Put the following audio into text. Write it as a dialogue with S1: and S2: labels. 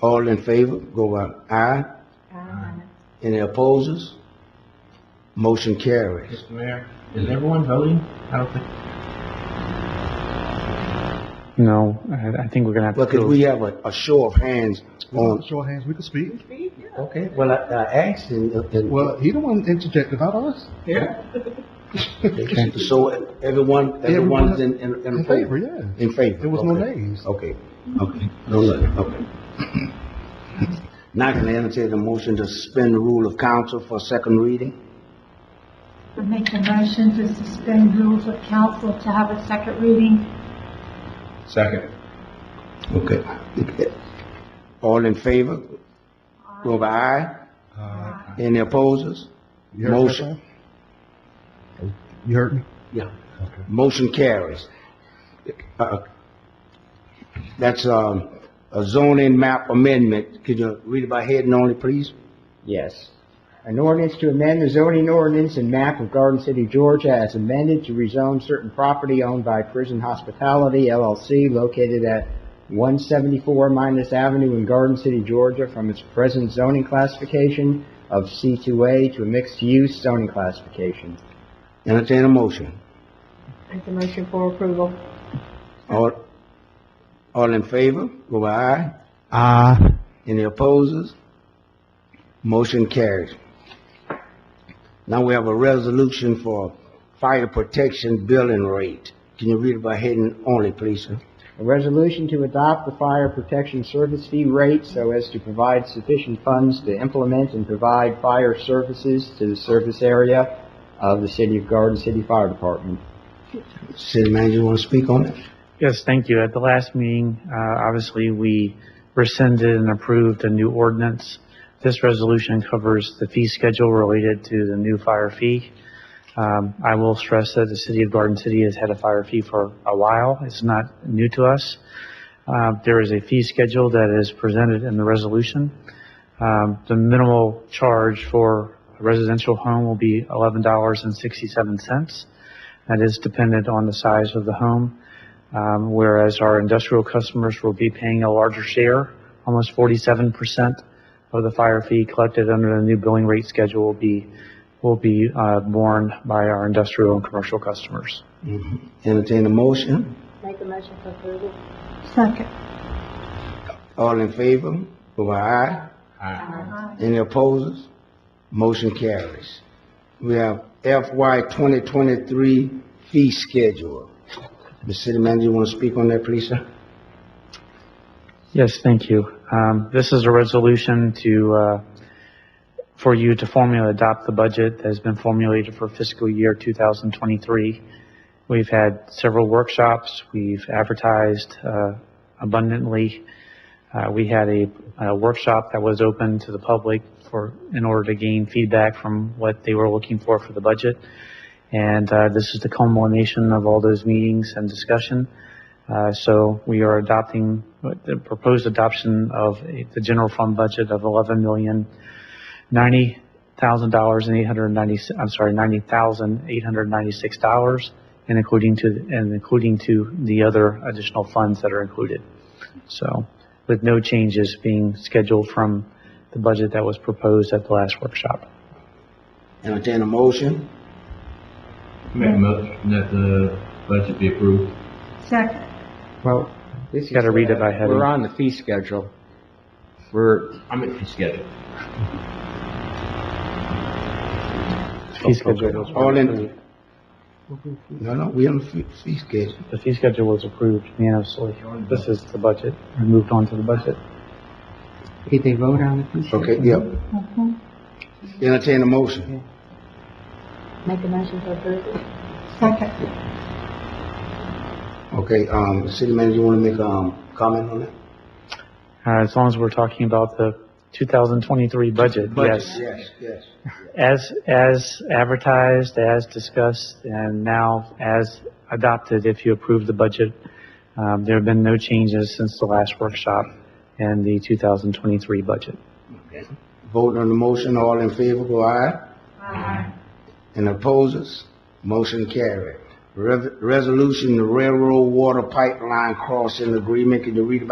S1: All in favor, go by aye.
S2: Aye.
S1: Any opposers? Motion carries.
S3: Mr. Mayor, is everyone voting? I don't think.
S4: No, I, I think we're gonna have to.
S1: Well, could we have a, a show of hands on,
S5: Show of hands, we could speak.
S1: okay, well, I, I asked and, and.
S5: Well, he the one interjected, not us.
S1: So uh, everyone, everyone's in, in,
S5: In
S1: in favor?
S5: favor, yeah.
S1: In favor?
S5: There was no
S1: okay.
S5: names.
S1: Okay, okay, no, no, okay. Now can I entertain a motion to suspend the rule of council for second reading?
S2: I Make a motion to suspend rules of council to have a second reading.
S3: Second.
S1: Okay. All in favor? Go by aye.
S3: Uh,
S1: Any opposers?
S5: You heard what I
S1: Motion.
S5: said? You heard me?
S1: Yeah. Motion carries. Uh, That's, um, a zoning map amendment. Could you read it by head and only, please?
S6: Yes. An ordinance to amend the zoning ordinance and map of Garden City, Georgia as amended to rezone certain property owned by Prison Hospitality LLC located at 174 Minus Avenue in Garden City, Georgia from its present zoning classification of C2A to a mixed-use zoning classification.
S1: Entertain a motion.
S2: Make a motion for approval.
S1: All, all in favor? Go by aye.
S5: Ah.
S1: Any opposers? Motion carries. Now we have a resolution for fire protection billing rate. Can you read it by heading only, please, sir?
S6: A resolution to adopt the fire protection service fee rate so as to provide sufficient funds to implement and provide fire services to the service area of the City of Garden City Fire Department.
S1: City manager, you want to speak on it?
S4: Yes, thank you. At the last meeting, uh, obviously, we rescinded and approved a new ordinance. This resolution covers the fee schedule related to the new fire fee. Um, I will stress that the city of Garden City has had a fire fee for a while. It's not new to us. Uh, there is a fee schedule that is presented in the resolution. Um, the minimal charge for a residential home will be eleven dollars and sixty-seven cents. That is dependent on the size of the home um, whereas our industrial customers will be paying a larger share, almost 47% of the fire fee collected under the new billing rate schedule will be, will be uh, borne by our industrial and commercial customers.
S1: Entertain a motion.
S2: Make a motion for approval. Second.
S1: All in favor? Go by aye.
S3: aye.
S1: Any opposers? Motion carries. We have FY 2023 fee schedule. The city manager, you want to speak on that, please, sir?
S4: Yes, thank you. Um, This is a resolution to, uh, for you to formally adopt the budget that has been formulated for fiscal year 2023. We've had several workshops, we've advertised uh, abundantly. Uh, We had a a workshop that was open to the public for, in order to gain feedback from what they were looking for for the budget. And uh, this is the culmination of all those meetings and discussion. Uh, So we are adopting, the proposed adoption of a- the general fund budget of eleven million ninety thousand dollars and eight hundred ninety, I'm sorry, ninety thousand eight hundred ninety-six dollars, and including to, and including to the other additional funds that are included. So with no changes being scheduled from the budget that was proposed at the last workshop.
S1: Entertain a motion.
S3: Make a motion that the budget be approved.
S2: Second.
S6: Well, this is.
S4: Gotta read it by heading.
S6: We're on the fee schedule. We're,
S3: I'm at the schedule.
S4: Fee schedule was-
S1: All in. No, no, we on the fee- fee schedule.
S4: The fee schedule was approved unanimously. This is the budget. We moved on to the budget.
S6: did they vote on the fee schedule?
S1: Okay, yep. Entertain a motion.
S2: Make a motion for approval. Second.
S1: Okay, um, city manager, you wanna make, um, comment on that?
S4: Uh, As long as we're talking about the 2023 budget, yes.
S1: Yes, yes.
S4: As, as advertised, as discussed, and now as adopted, if you approve the budget, um, there have been no changes since the last workshop and the 2023 budget.
S1: Vote on the motion, all in favor, go aye.
S2: Aye.
S1: And opposes, motion carried. Rev- Resolution, the railroad water pipeline crossing agreement, can you read about